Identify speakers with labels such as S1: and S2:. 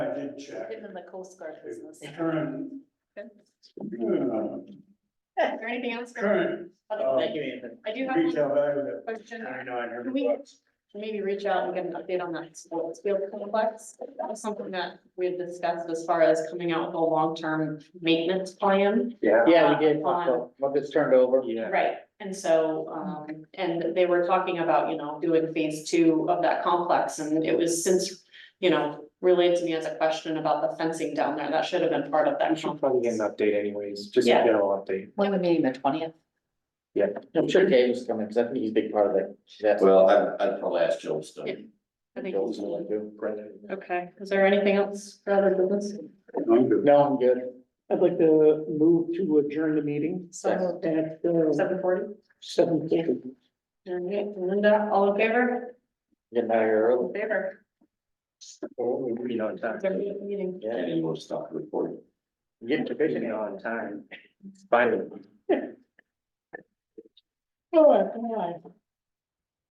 S1: check.
S2: Him in the Coast Guard business.
S1: Current.
S2: Good.
S1: uh,
S2: Is there anything else? for-
S1: Current um,
S2: Okay,
S3: Thank you, Anthony.
S2: I do have one
S1: retail value at
S2: question.
S1: ninety-nine
S2: Can
S1: hundred
S2: we
S1: bucks.
S2: maybe reach out and get an update on that sports field complex? That was something that we had discussed as far as coming out with a long-term maintenance plan.
S4: Yeah.
S3: Yeah, we did, well, it's turned over.
S4: Yeah.
S2: Right, and so, um, and they were talking about, you know, doing phase two of that complex, and it was since, you know, relayed to me as a question about the fencing down there, that should have been part of
S4: We
S2: that.
S4: should probably get an
S2: complex.
S4: update anyways, just a
S2: Yeah.
S4: general update.
S5: When are we meeting, the twentieth?
S3: I'm sure Dave was coming, because I think he's a big part of that. That's
S6: Well, I, I'd probably ask Joe Stone.
S2: I think-
S3: Joel's gonna do.
S2: Okay, is there anything else for other business?
S3: No, I'm good.
S7: I'd like to move to adjourn the meeting
S2: So,
S7: at
S2: seven forty?
S7: seven fifty.
S2: All right, Linda, all in favor?
S3: Getting out of here early.
S2: Favor.
S4: You know, in time.
S2: They're meeting.
S3: Yeah,
S6: And he will stop recording.
S3: getting to
S4: You
S3: fishing
S4: know, in time. Finally.
S2: Sure, come on.